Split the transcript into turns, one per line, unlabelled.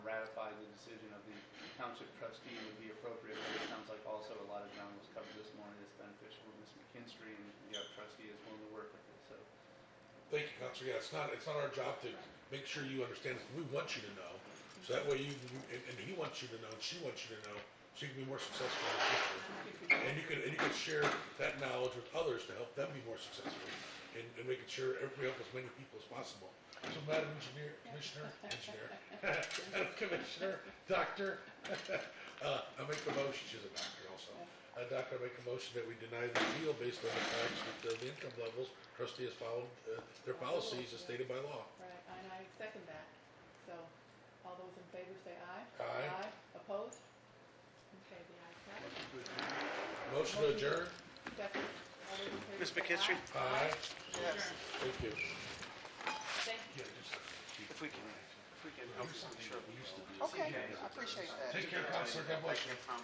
township trustee would be appropriate, but it sounds like also a lot of ground was covered this morning that's beneficial with Ms. McKinstry, and the other trustee is willing to work with it, so.
Thank you, Counselor. Yeah, it's not, it's not our job to make sure you understand this. We want you to know. So that way you, and, and he wants you to know, and she wants you to know, so you can be more successful in the future. And you can, and you can share that knowledge with others to help them be more successful and, and making sure everybody helps as many people as possible. So Madam Engineer, Commissioner, Engineer, Madam Commissioner, Doctor, uh, I make the motion, she's a doctor also. Uh, Doctor, I make a motion that we deny the appeal based on the facts that uh, the income levels trustee has followed uh, their policies as stated by law.
Right, and I second that. So, all those in favor say aye.
Aye.
Opposed? Okay, the ayes have it.
Motion to adjourn?
Second, all those in favor
Ms.
say
McKittrick?
Aye.
Yes.
Thank you.
Thank
Yeah,
you.
just-
If we can, if we can help,
Here's
I'm
something
sure
that we used to do.
Okay, I appreciate that.
Take care, Counselor. God bless you.